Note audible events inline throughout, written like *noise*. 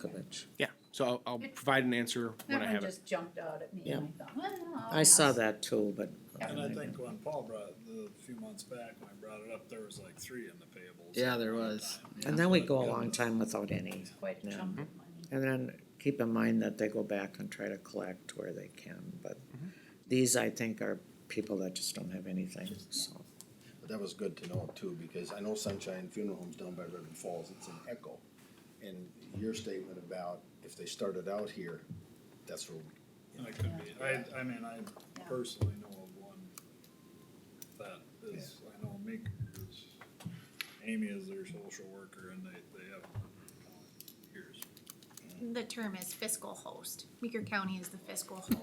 change. Yeah, so I'll, I'll provide an answer when That I one have it. just jumped out at me and I thought, well. I saw that too, but. Yeah. And I think when Paul brought, it the few months back, when I brought it up, there was like three in the payables. Yeah, there at one was. time. And then we go a long time without any. It's quite a Yeah. Mm-hmm. chunk of money. And then keep in mind that they go back and try to collect where they can, but these, I think, are people that just don't have anything, so. But that was good to know too, because I know Sunshine Funeral Home's down by Ribbon Falls, it's an echo. And your statement about if they started out here, that's where, And it could be, I, I mean, I personally know of one that is, I know Meeker is, Amy is their social worker and they, they have one for years. The term is fiscal host. Meeker County is the *laughs* fiscal host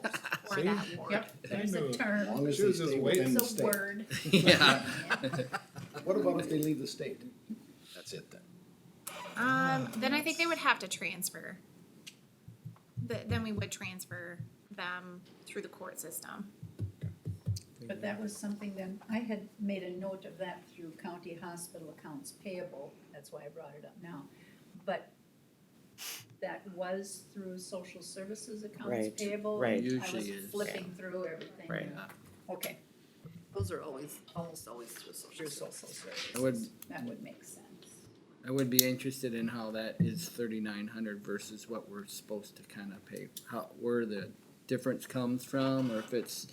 for See? that ward. Yep, there's I knew a it. as term, long as She they was just stay within the it's a state. word. Yeah. What about if they leave the state? That's it then. Um, then I think they would have to transfer. Th- then we would transfer them through the court system. But that was something then, I had made a note of that through county hospital accounts payable, that's why I brought it up now. But that was through social services accounts Right, payable. right. and I was Usually is. flipping through everything. Right. you know. Okay, Those are always, almost always through social through services. social services. I would- That would make sense. I would be interested in how that is thirty-nine hundred versus what we're supposed to kind of pay, how, where the difference comes from, or if it's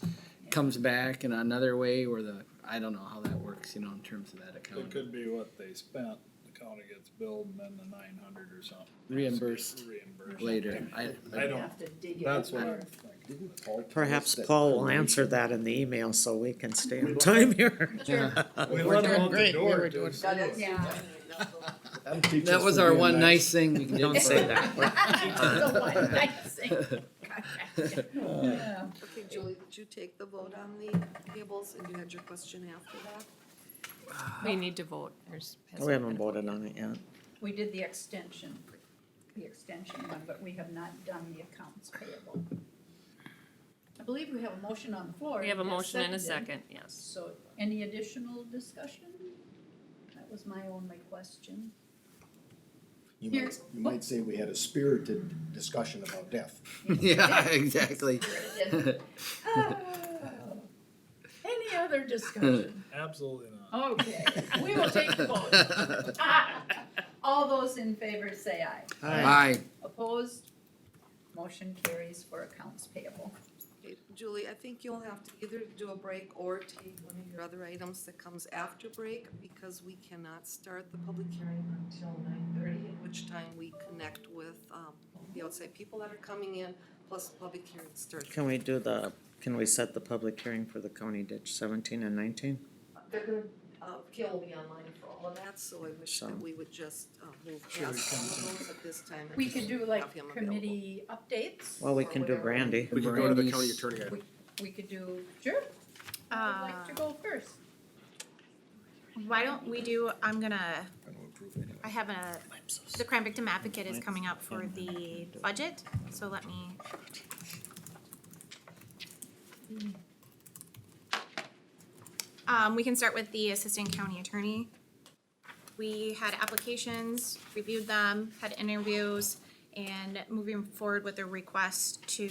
comes back in another way, or the, I don't know how that works, you know, in terms of that It account. could be what they spent, the county gets billed and then the nine hundred or something. Reimbursed Reimbursed. Later, I, I I, don't, Have to dig it. that's up. what I'm Didn't Paul? tell us Perhaps that- Paul will answer *laughs* that in the email so we can stay on time here. We let doing them out the great. We door. were too. doing- Yeah. *laughs* *laughs* That'll teach that us was to our be a one nice- nice thing we can do. Don't *laughs* say that. That's the one *laughs* *laughs* *laughs* nice thing. Yeah. Okay, Julie, did you take the vote on the payables and you had your question after that? We need to vote. There's- Oh, We haven't voted on it yet. We did the extension, the extension one, but we have not done the accounts payable. I believe we have a motion on the floor. We have a It is motion and a seconded. second, yes. So any additional *laughs* discussion? That was my only question. You Here. might, you might say we had a spirited discussion *laughs* about death. *laughs* Yeah, exactly. Any other *laughs* discussion? Absolutely not. Okay, we will take the vote. *laughs* Ah, All those in favor say aye. Aye. Opposed? Motion carries for accounts payable. Okay, Julie, I think you'll have to either do a break or take one of your other items that comes after break because we cannot start the public hearing until nine thirty, at which time we connect with, um, the outside people that are coming in, plus the public hearing starts. Can we do the, can we set the public hearing for the county ditch seventeen and nineteen? They're gonna, uh, Gail will be online for all of that, so I wish So- that we would just, uh, move past all of those at this time. and We just could do have like him available. committee updates. Well, we can do Brandy. We could go to the Brandy's- county attorney. I- We could do, sure, I'd like to go first. Why don't we do, I'm gonna, I'm gonna approve anyway. I have a, the crime victim advocate is coming up for the budget, so let me. Um, we can start with the assistant county attorney. We had applications, reviewed them, had interviews, and moving forward with a request to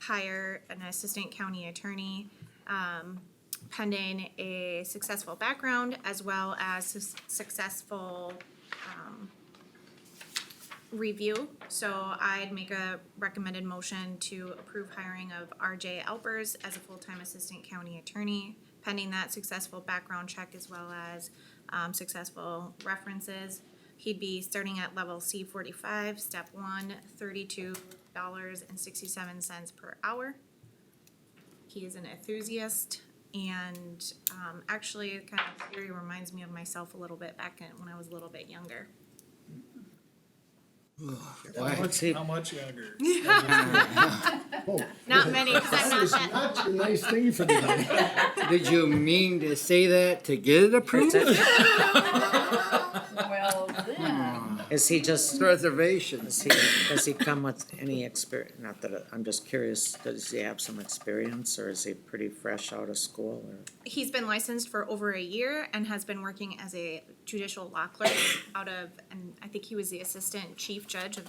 hire an assistant county attorney pending a successful background as well as sus- successful um, review. So I'd make a recommended motion to approve hiring of RJ Alpers as a full-time assistant county attorney, pending that successful background check as well as um, successful references. He'd be starting at level C forty-five, step one, thirty-two dollars and sixty-seven cents per hour. He is an enthusiast and um, actually it kind of theory reminds me of myself a little bit back in when I was a little bit younger. How Why? much, how much younger? Oh, Not many, because I'm not that. Not a nice thing for the night. Did you mean to say that to get it approved? Well, then, Is he just, Reservations. does he, does he come with any experience? Not that, I'm just curious, does he have some experience or is he pretty fresh out of school or? He's been licensed for over a year and has been working as a judicial law clerk out of, and I think he was the assistant chief judge of